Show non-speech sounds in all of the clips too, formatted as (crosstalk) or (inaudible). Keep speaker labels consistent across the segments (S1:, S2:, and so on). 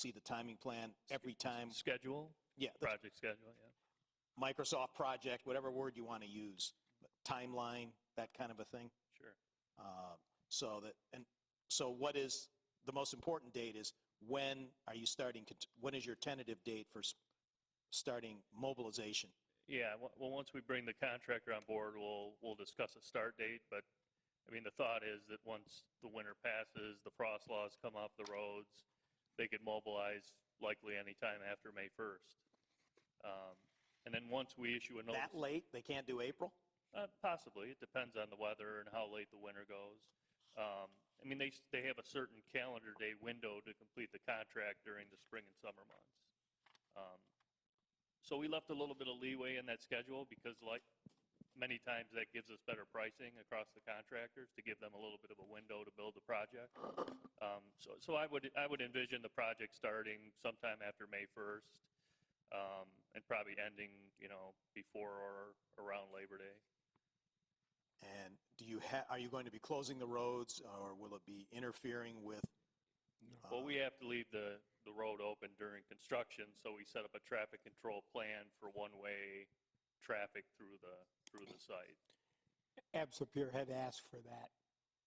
S1: see the timing plan every time.
S2: Schedule,
S1: Yeah, the
S2: project schedule, yeah.
S1: Microsoft project, whatever word you want to use, timeline, that kind of a thing.
S2: Sure.
S1: Uh, So that, and so what is, the most important date is when are you starting, cont- when is your tentative date for s- starting mobilization?
S2: Yeah, well- well, once we bring the contractor on board, we'll, we'll discuss a start date, but, I mean, the thought is that once the winter passes, the frost laws come off the roads, they could mobilize likely anytime after May 1st. Um, And then once we issue a notice.
S1: That late, they can't do April?
S2: Uh, possibly. It depends on the weather and how late the winter goes. Um, I mean, they, s- they have a certain calendar day window to complete the contract during the spring and summer months. Um, so we left a little bit of leeway in that schedule because like many times that gives us better pricing across the contractors to give them a little bit of a window to build the project. Um, so, so I would, I would envision the project starting sometime after May 1st, um, and probably ending, you know, before or around Labor Day.
S1: And do you have, are you going to be closing the roads or will it be interfering with?
S2: Well,
S1: uh,
S2: we have to leave the, the road open during construction, so we set up a traffic control plan for one-way traffic through the, through the site.
S3: Absapir had asked for that.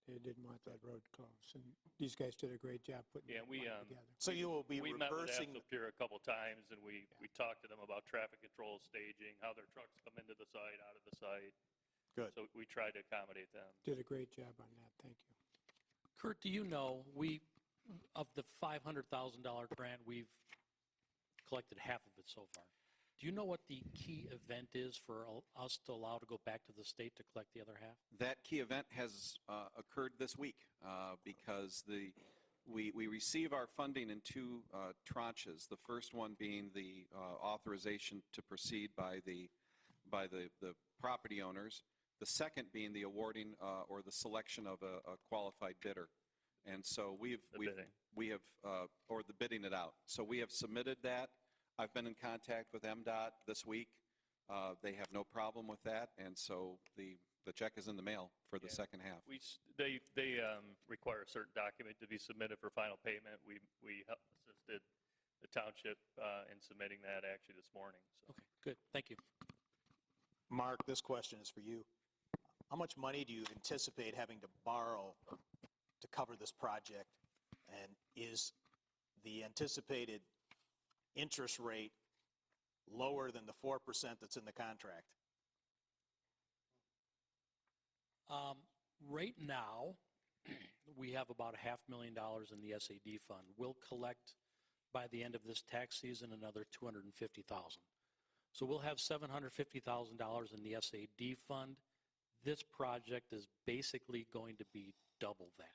S3: They didn't want that road closed, and these guys did a great job putting
S2: Yeah,
S3: that
S2: we,
S3: plan
S2: um,
S3: together.
S1: So you will be
S2: We met with
S1: reversing,
S2: Apsapir a couple times, and we, we talked to them about traffic control staging, how their trucks come into the site, out of the site.
S1: Good.
S2: So we tried to accommodate them.
S3: Did a great job on that, thank you.
S4: Kurt, do you know, we, of the $500,000 grant, we've collected half of it so far. Do you know what the key event is for al- us to allow to go back to the state to collect the other half?
S5: That key event has uh, occurred this week uh, because the, we, we receive our funding in two uh, tranches. The first one being the uh, authorization to proceed by the, by the, the property owners. The second being the awarding uh, or the selection of a a qualified bidder. And so we've,
S2: The
S5: we've
S2: bidding.
S5: we have, uh, or the bidding it out. So we have submitted that. I've been in contact with MDOT this week. Uh, They have no problem with that, and so the, the check is in the mail for the
S2: Yeah.
S5: second half.
S2: We, s- they, they um, require a certain document to be submitted for final payment. We, we help- assisted the township uh, in submitting that actually this morning, so.
S4: Okay, good, thank you.
S1: Mark, this question is for you. How much money do you anticipate having to borrow to cover this project? And is the anticipated interest rate lower than the 4% that's in the contract?
S4: Um, Right now, (clears throat) we have about a half million dollars in the SAD fund. We'll collect by the end of this tax season another 250,000. So we'll have $750,000 in the SAD fund. This project is basically going to be double that.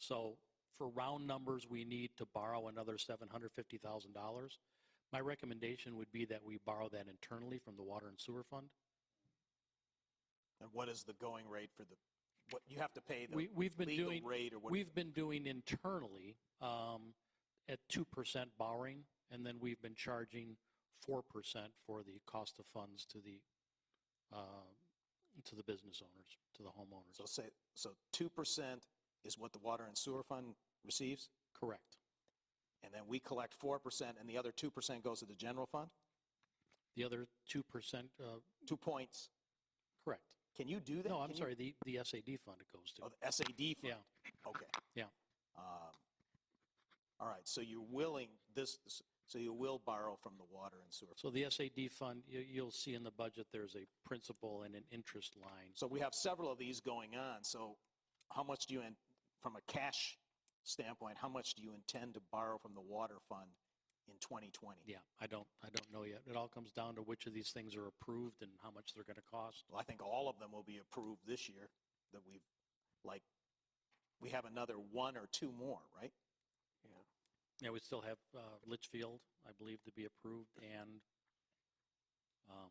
S4: So for round numbers, we need to borrow another $750,000. My recommendation would be that we borrow that internally from the water and sewer fund.
S1: And what is the going rate for the, what, you have to pay the
S4: We, we've been
S1: legal
S4: doing.
S1: rate or what?
S4: We've been doing internally um, at 2% borrowing, and then we've been charging 4% for the cost of funds to the, uh, to the business owners, to the
S1: So
S4: homeowners.
S1: say, so 2% is what the water and sewer fund receives?
S4: Correct.
S1: And then we collect 4% and the other 2% goes to the general fund?
S4: The other 2%, uh,
S1: Two points.
S4: correct.
S1: Can you do that?
S4: No, I'm
S1: Can you-
S4: sorry, the, the SAD fund it goes
S1: Oh,
S4: to.
S1: the SAD fund?
S4: Yeah,
S1: Okay.
S4: Yeah.
S1: Um, All right, so you're willing, this, so you will borrow from the water and sewer.
S4: so the SAD fund, you, you'll see in the budget, there's a principal and an interest line.
S1: So we have several of these going on, so how much do you, in- from a cash standpoint, how much do you intend to borrow from the water fund in 2020?
S4: Yeah, I don't, I don't know yet. It all comes down to which of these things are approved and how much they're going to cost.
S1: Well, I think all of them will be approved this year, that we've, like, we have another one or two more, right?
S4: Yeah, we still have uh, Litchfield, I believe, to be approved, and um,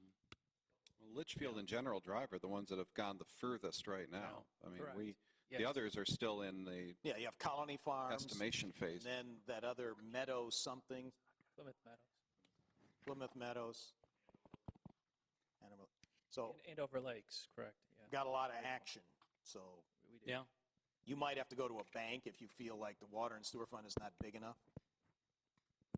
S5: Litchfield and General Drive are the ones that have gone the furthest right now. I mean, we, the others are still in the
S1: Yeah, you have Colony Farms.
S5: estimation
S1: And
S5: phase.
S1: then that other Meadow something,
S6: Plymouth Meadows.
S1: Plymouth Meadows. Animal- So,
S6: And Andover Lakes, correct, yeah.
S1: got a lot of action, so
S6: we do.
S4: yeah,
S1: you might have to go to a bank if you feel like the water and sewer fund is not big enough.